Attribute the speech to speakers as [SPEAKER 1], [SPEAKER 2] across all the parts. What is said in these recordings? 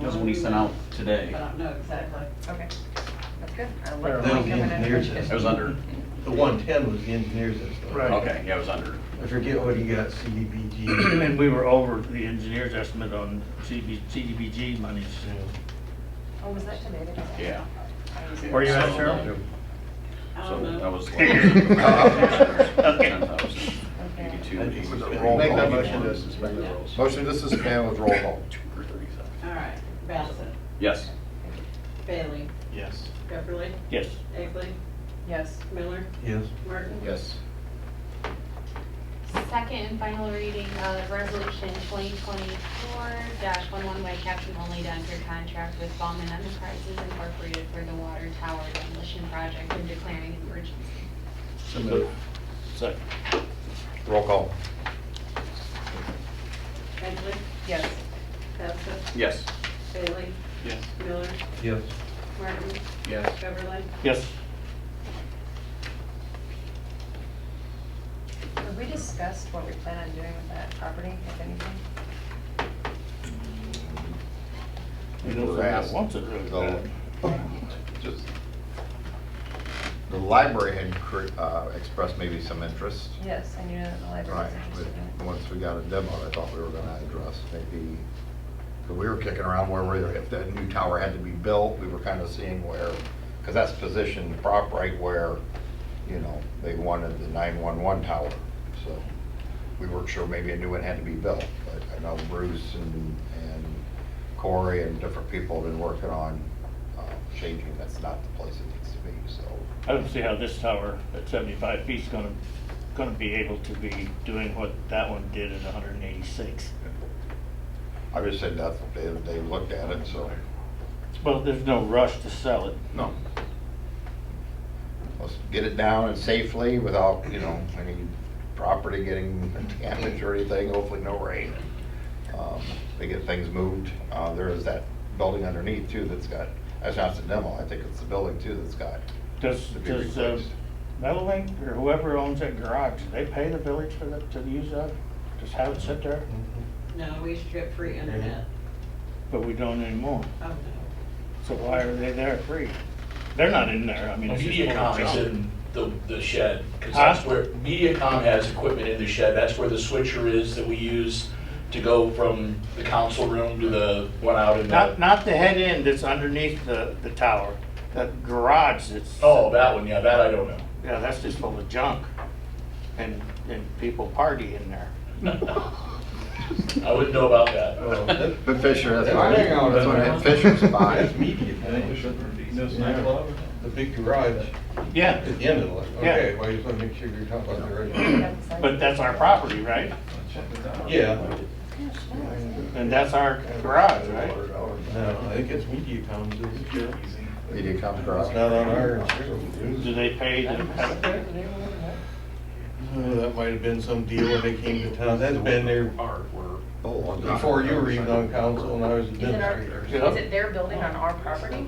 [SPEAKER 1] That's what he sent out today.
[SPEAKER 2] I don't know exactly.
[SPEAKER 3] Okay, that's good. I'll
[SPEAKER 4] Fair
[SPEAKER 3] let
[SPEAKER 4] enough.
[SPEAKER 3] Mike
[SPEAKER 4] The
[SPEAKER 3] have an
[SPEAKER 4] engineer's
[SPEAKER 3] extra-
[SPEAKER 1] It was under,
[SPEAKER 4] The one ten was the engineer's estimate.
[SPEAKER 5] Right.
[SPEAKER 1] okay, yeah, it was under.
[SPEAKER 4] I forget what he got, CDBG.
[SPEAKER 5] And we were over the engineer's estimate on CB CDBG monies.
[SPEAKER 3] Oh, was that today? that it-
[SPEAKER 1] Yeah.
[SPEAKER 3] I was-
[SPEAKER 5] Were you at, Cheryl?
[SPEAKER 2] I
[SPEAKER 1] So
[SPEAKER 2] don't know.
[SPEAKER 1] that was. like-
[SPEAKER 5] Okay.
[SPEAKER 1] 10,000,
[SPEAKER 3] Okay.
[SPEAKER 1] 82,
[SPEAKER 4] I
[SPEAKER 1] 82,
[SPEAKER 4] think it was a
[SPEAKER 1] maybe
[SPEAKER 4] roll
[SPEAKER 6] Make that
[SPEAKER 4] call.
[SPEAKER 6] motion to suspend the rules. Motion to suspend with roll call.
[SPEAKER 1] Or 37.
[SPEAKER 2] All right, Bassett,
[SPEAKER 1] Yes.
[SPEAKER 2] Bailey,
[SPEAKER 4] Yes.
[SPEAKER 2] Pepperly,
[SPEAKER 5] Yes.
[SPEAKER 2] Egley,
[SPEAKER 3] Yes.
[SPEAKER 2] Miller,
[SPEAKER 4] Yes.
[SPEAKER 2] Martin.
[SPEAKER 6] Yes.
[SPEAKER 7] Second and final reading of Resolution 2024-11 by caption only to enter contract with Bauman Enterprises Incorporated for the water tower demolition project and declaring an emergency.
[SPEAKER 6] So moved.
[SPEAKER 5] Second.
[SPEAKER 6] Roll call.
[SPEAKER 2] Egley,
[SPEAKER 3] Yes.
[SPEAKER 2] Bassett,
[SPEAKER 1] Yes.
[SPEAKER 2] Bailey,
[SPEAKER 5] Yes.
[SPEAKER 2] Miller,
[SPEAKER 4] Yes.
[SPEAKER 2] Martin,
[SPEAKER 6] Yes.
[SPEAKER 2] Pepperly.
[SPEAKER 5] Yes.
[SPEAKER 3] Have we discussed what we plan on doing with that property, if anything?
[SPEAKER 5] You know, somebody wants it really
[SPEAKER 6] The
[SPEAKER 5] bad.
[SPEAKER 6] just- the library had cre- uh, expressed maybe some interest.
[SPEAKER 3] Yes, I knew that the library was
[SPEAKER 6] Right, but
[SPEAKER 3] interested in it.
[SPEAKER 6] once we got a demo, I thought we were gonna address maybe, because we were kicking around where, we- if that new tower had to be built, we were kind of seeing where, because that's positioned prop right where, you know, they wanted the 911 tower, so we weren't sure maybe a new one had to be built. But I know Bruce and and Corey and different people have been working on uh, changing, that's not the place it needs to be, so.
[SPEAKER 5] I don't see how this tower at 75 feet's gonna, gonna be able to be doing what that one did at 186.
[SPEAKER 6] I just said that, they they looked at it, so.
[SPEAKER 5] Well, there's no rush to sell it.
[SPEAKER 6] No. Let's get it down and safely without, you know, any property getting damaged or anything, hopefully no rain. Um, They get things moved. Uh, There is that building underneath too that's got, that's not the demo, I think it's the building too that's got.
[SPEAKER 5] Does,
[SPEAKER 6] to be
[SPEAKER 5] does uh,
[SPEAKER 6] replaced.
[SPEAKER 5] Meadowbank or whoever owns that garage, do they pay the village for that, to use that? Just have it sit there?
[SPEAKER 2] No, we used to get free internet.
[SPEAKER 1] Mm-hmm.
[SPEAKER 5] But we don't anymore.
[SPEAKER 2] Oh, no.
[SPEAKER 5] So why are they there free? They're not in there, I mean. it's just
[SPEAKER 8] MediaCom
[SPEAKER 5] one
[SPEAKER 8] is
[SPEAKER 5] job.
[SPEAKER 8] in the, the shed, because
[SPEAKER 5] Huh?
[SPEAKER 8] that's where, MediaCom has equipment in the shed, that's where the switcher is that we use to go from the council room to the one out in
[SPEAKER 5] Not,
[SPEAKER 8] the.
[SPEAKER 5] not the head end that's underneath the, the tower, that garage that's.
[SPEAKER 8] Oh, that one, yeah, that I don't know.
[SPEAKER 5] Yeah, that's just full of junk, and, and people party in there.
[SPEAKER 8] I wouldn't know about that.
[SPEAKER 6] Oh,
[SPEAKER 4] Well, that-
[SPEAKER 6] But Fisher, that's why,
[SPEAKER 4] Hang on a
[SPEAKER 6] that's why
[SPEAKER 4] minute.
[SPEAKER 6] Fisher's buying.
[SPEAKER 4] That's media. The big garage
[SPEAKER 5] Yeah,
[SPEAKER 4] at the end of the, line.
[SPEAKER 5] Yeah.
[SPEAKER 4] okay, well, you just want to make sure you're talking about the original.
[SPEAKER 3] Yeah, it's like-
[SPEAKER 5] but that's our property, right?
[SPEAKER 4] Yeah,
[SPEAKER 5] And that's our garage, right?
[SPEAKER 4] no, I think it's MediaCom's, isn't it?
[SPEAKER 6] MediaCom
[SPEAKER 4] It's
[SPEAKER 6] garage.
[SPEAKER 4] not on our insurance.
[SPEAKER 5] Do they pay to have it there?
[SPEAKER 4] Oh, That might have been some deal when they came to town. That's been there
[SPEAKER 6] Oh, on-
[SPEAKER 4] before you were even on council and I was
[SPEAKER 3] Is it our,
[SPEAKER 4] administrator.
[SPEAKER 5] Yeah.
[SPEAKER 3] is it their building on our property?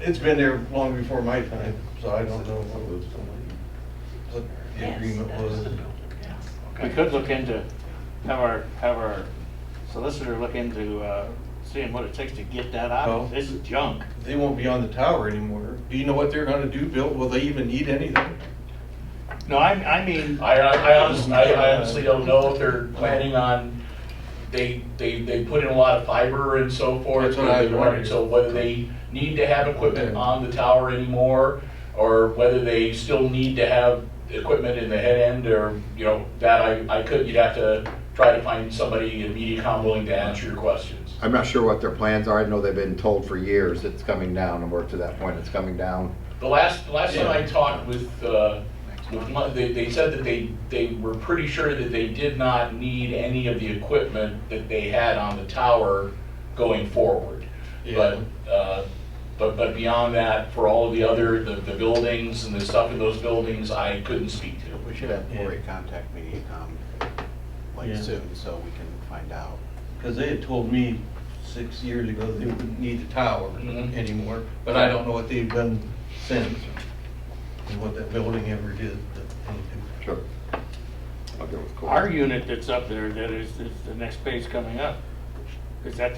[SPEAKER 4] It's been there long before my time, so I don't know what was, what the
[SPEAKER 2] Yes,
[SPEAKER 4] agreement
[SPEAKER 2] that
[SPEAKER 4] was.
[SPEAKER 2] the building, yes.
[SPEAKER 5] We could look into, have our, have our solicitor look into, uh, seeing what it takes to get that
[SPEAKER 4] Well-
[SPEAKER 5] out. This is junk.
[SPEAKER 4] They won't be on the tower anymore. Do you know what they're gonna do, Bill? Will they even need anything?
[SPEAKER 5] No, I, I mean,
[SPEAKER 8] I, I honestly, I honestly don't know if they're planning on, they, they, they put in a lot of fiber and so forth.
[SPEAKER 4] That's what I was
[SPEAKER 8] and
[SPEAKER 4] wondering.
[SPEAKER 8] So whether they need to have equipment on the tower anymore, or whether they still need to have equipment in the head end, or, you know, that I, I could, you'd have to try to find somebody in MediaCom willing to answer your questions.
[SPEAKER 6] I'm not sure what their plans are. I know they've been told for years it's coming down and we're to that point, it's coming down.
[SPEAKER 8] The last, the last time I talked with, uh, with one, they, they said that they, they were pretty sure that they did not need any of the equipment that they had on the tower going forward. But, uh, but, but beyond that, for all of the other, the, the buildings and the stuff in those buildings, I couldn't speak to.
[SPEAKER 9] We should have Cory contact MediaCom like
[SPEAKER 4] Yeah.
[SPEAKER 9] soon, so we can find out.
[SPEAKER 4] Cause they had told me six years ago they wouldn't need the tower
[SPEAKER 8] Mhm.
[SPEAKER 4] anymore, but I don't know what they've done since. And what that building ever did. but-
[SPEAKER 6] Sure. I'll go with Corey.
[SPEAKER 5] our unit that's up there, that is, is the next page coming up. Is that